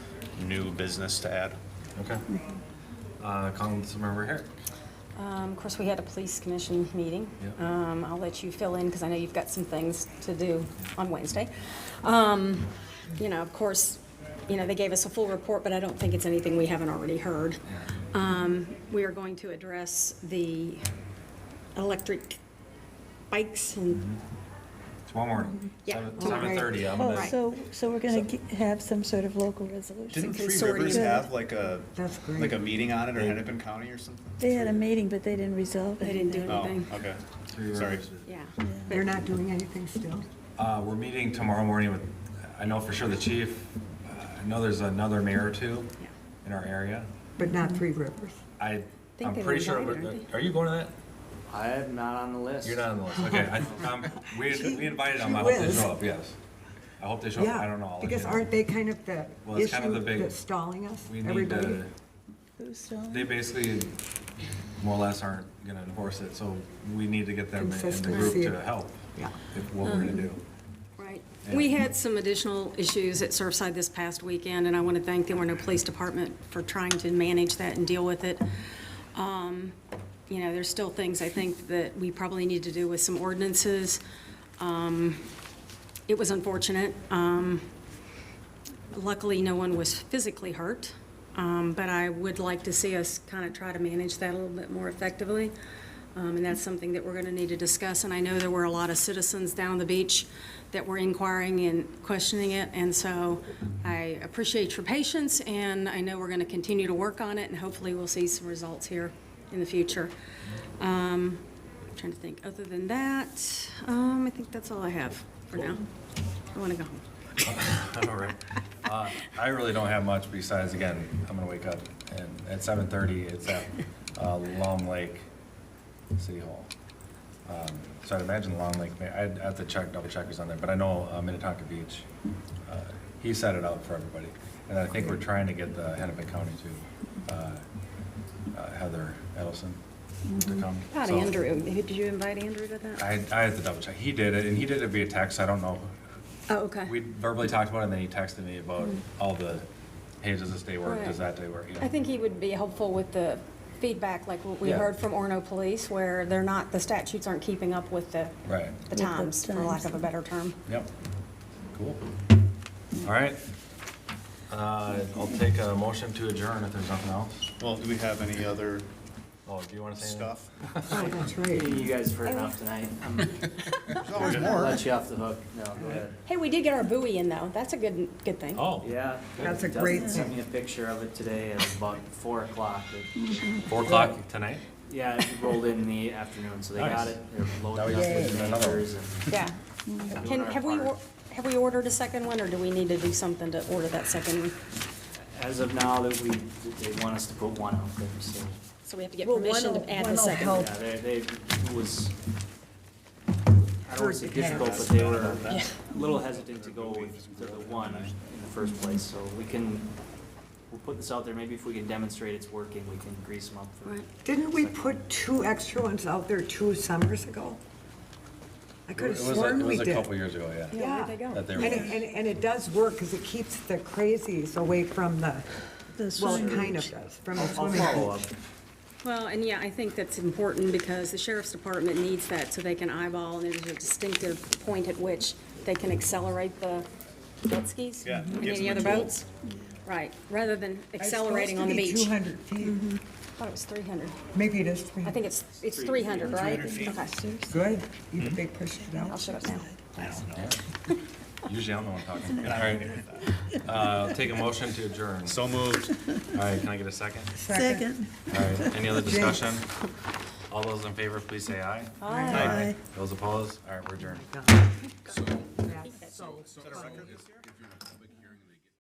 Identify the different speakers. Speaker 1: new business to add.
Speaker 2: Okay. Uh, Councilmember Herrick.
Speaker 3: Um, Of course, we had a police commission meeting.
Speaker 2: Yep.
Speaker 3: Um, I'll let you fill in, because I know you've got some things to do on Wednesday. Um, You know, of course, you know, they gave us a full report, but I don't think it's anything we haven't already heard. Um, We are going to address the electric bikes and,
Speaker 2: Tomorrow morning.
Speaker 3: Yeah, tomorrow.
Speaker 2: Seven thirty, I'm
Speaker 4: Oh,
Speaker 2: gonna,
Speaker 3: Right.
Speaker 4: so, so we're gonna ge- have some sort of local resolution.
Speaker 1: Didn't Three
Speaker 3: consortium.
Speaker 1: Rivers have like a,
Speaker 5: That's great.
Speaker 1: like a meeting on it, or Hennepin County or something?
Speaker 4: They had a meeting, but they didn't resolve it.
Speaker 3: They didn't do it.
Speaker 1: Oh,
Speaker 3: Anything.
Speaker 1: okay,
Speaker 2: Three
Speaker 1: sorry.
Speaker 2: Rivers.
Speaker 3: yeah.
Speaker 5: They're not doing anything still?
Speaker 2: Uh, we're meeting tomorrow morning with, I know for sure the chief, uh, I know there's another mayor or two
Speaker 3: Yeah.
Speaker 2: in our area.
Speaker 5: But not Three Rivers?
Speaker 2: I,
Speaker 3: think
Speaker 2: I'm
Speaker 3: they were
Speaker 2: pretty sure,
Speaker 3: invited, aren't
Speaker 2: are you going to that?
Speaker 6: I am not on the list.
Speaker 2: You're not on the list, okay. I- um, We, we invited them, I
Speaker 5: she
Speaker 2: hope they
Speaker 5: whizzed.
Speaker 2: show up, yes. I hope they show
Speaker 5: Yeah.
Speaker 2: up, I don't know. I'll let
Speaker 5: Because
Speaker 2: you know.
Speaker 5: aren't they kind of the
Speaker 2: Well, it's kind of
Speaker 5: issue
Speaker 2: the big-
Speaker 5: that's stalling us?
Speaker 2: We need
Speaker 5: Everybody?
Speaker 2: to,
Speaker 4: Who's still?
Speaker 2: they basically more or less aren't gonna enforce it, so we need to get them in the group
Speaker 5: Consistency.
Speaker 2: to help.
Speaker 5: Yeah.
Speaker 2: If what we're gonna do.
Speaker 3: Right. We had some additional issues at Surfside this past weekend, and I want to thank the Orno Police Department for trying to manage that and deal with it. Um, You know, there's still things I think that we probably need to do with some ordinances. Um, It was unfortunate. Um, Luckily, no one was physically hurt, um, but I would like to see us kind of try to manage that a little bit more effectively. Um, And that's something that we're going to need to discuss. And I know there were a lot of citizens down on the beach that were inquiring and questioning it. And so I appreciate your patience, and I know we're going to continue to work on it, and hopefully we'll see some results here in the future. Um, Trying to think, other than that, um, I think that's all I have for now. I want to go home.
Speaker 2: All right. Uh, I really don't have much besides, again, I'm gonna wake up and at seven thirty, it's at uh, Long Lake City Hall. Um, So I'd imagine Long Lake, may- I'd have to check, double check who's on there, but I know uh, Minnetonka Beach, uh, he set it up for everybody. And I think we're trying to get the Hennepin County to, uh, uh, Heather Edelson to come.
Speaker 3: About
Speaker 2: So-
Speaker 3: Andrew, did you invite Andrew to that?
Speaker 2: I, I have to double check. He did it, and he did it via text. I don't know.
Speaker 3: Oh, okay.
Speaker 2: We verbally talked about it, and then he texted me about all the, hey, does this day work? Does that
Speaker 3: Right.
Speaker 2: day work? You know?
Speaker 3: I think he would be helpful with the feedback, like what we
Speaker 2: Yeah.
Speaker 3: heard from Orno Police, where they're not, the statutes aren't keeping up with the,
Speaker 2: Right.
Speaker 3: the times, for lack of a better term.
Speaker 2: Yep. Cool. All right. Uh, I'll take a motion to adjourn if there's nothing else.
Speaker 1: Well, do we have any other
Speaker 2: Oh, do you want to say anything?
Speaker 1: stuff?
Speaker 5: Oh, that's right.
Speaker 6: Hitting you guys for enough tonight. I'm
Speaker 1: There's always
Speaker 6: gonna
Speaker 1: more.
Speaker 6: let you off the hook. No, go ahead.
Speaker 3: Hey, we did get our buoy in though. That's a good, good thing.
Speaker 2: Oh,
Speaker 6: Yeah.
Speaker 5: That's a
Speaker 6: Dustin
Speaker 5: great
Speaker 6: Sent me a picture of it today at about four o'clock. It-
Speaker 2: four o'clock tonight?
Speaker 6: Yeah, it rolled in the afternoon, so they got
Speaker 2: Nice.
Speaker 6: it. They're
Speaker 2: Now we
Speaker 6: loading up
Speaker 2: just
Speaker 6: with
Speaker 2: need another one.
Speaker 6: neighbors and.
Speaker 3: Yeah.
Speaker 6: doing
Speaker 3: Can,
Speaker 6: our
Speaker 3: have we,
Speaker 6: part.
Speaker 3: or- have we ordered a second one, or do we need to do something to order that second one?
Speaker 6: As of now, that we, that they want us to put one out there, so.
Speaker 3: So we have to get
Speaker 5: Well,
Speaker 3: permission
Speaker 5: one'll-
Speaker 3: to add the
Speaker 5: one'll
Speaker 3: second one.
Speaker 5: help.
Speaker 6: Yeah, they, they, it was, I don't want to say
Speaker 5: Hurt the
Speaker 6: difficult,
Speaker 5: parents.
Speaker 6: but they were a little hesitant to go with the one in the first place, so we can, we'll put this out there, maybe if we can demonstrate it's working, we can grease them up for
Speaker 3: Right.
Speaker 6: it.
Speaker 5: Didn't we put two extra ones out there two summers ago? I
Speaker 2: It
Speaker 5: could have
Speaker 2: was a-
Speaker 5: sworn
Speaker 2: it
Speaker 5: we
Speaker 2: was a
Speaker 5: did.
Speaker 2: couple years ago, yeah.
Speaker 3: Yeah,
Speaker 5: Yeah.
Speaker 3: where'd they go?
Speaker 2: That they
Speaker 5: And,
Speaker 2: were.
Speaker 5: it- and, and it does work because it keeps the crazies away from the,
Speaker 4: The
Speaker 5: well, it
Speaker 4: swimming
Speaker 5: kind
Speaker 4: beach.
Speaker 5: of does, from
Speaker 6: I'll
Speaker 5: the
Speaker 6: I'll
Speaker 5: swimming
Speaker 6: follow
Speaker 5: pool.
Speaker 6: up.
Speaker 3: Well, and yeah, I think that's important because the sheriff's department needs that so they can eyeball, and there's a distinctive point at which they can accelerate the jet skis.
Speaker 1: Yeah,
Speaker 3: And
Speaker 1: gives
Speaker 3: any
Speaker 1: them a
Speaker 3: other
Speaker 1: tool.
Speaker 3: boats. Right, rather than accelerating on the
Speaker 5: It's
Speaker 3: beach. I
Speaker 5: supposed to be 200 feet.
Speaker 3: thought it was three hundred.
Speaker 5: Maybe it is 300.
Speaker 3: I think it's, it's three hundred, right?
Speaker 1: 300 feet.
Speaker 3: Okay,
Speaker 5: Good.
Speaker 2: Mm-hmm.
Speaker 5: You they pushed it out.
Speaker 3: I'll shut up now.
Speaker 1: I don't know.
Speaker 2: Usually I'm the one talking. All
Speaker 1: And I'm
Speaker 2: right.
Speaker 1: okay with that.
Speaker 2: Uh, I'll take a motion to adjourn.
Speaker 1: So moved.
Speaker 2: All right, can I get a second?
Speaker 4: Second.
Speaker 2: All right, any other discussion? All those in favor, please say aye.
Speaker 4: Aye.
Speaker 2: Those opposed? All right, we're adjourned.
Speaker 1: Is
Speaker 5: That's-
Speaker 1: that a record this year?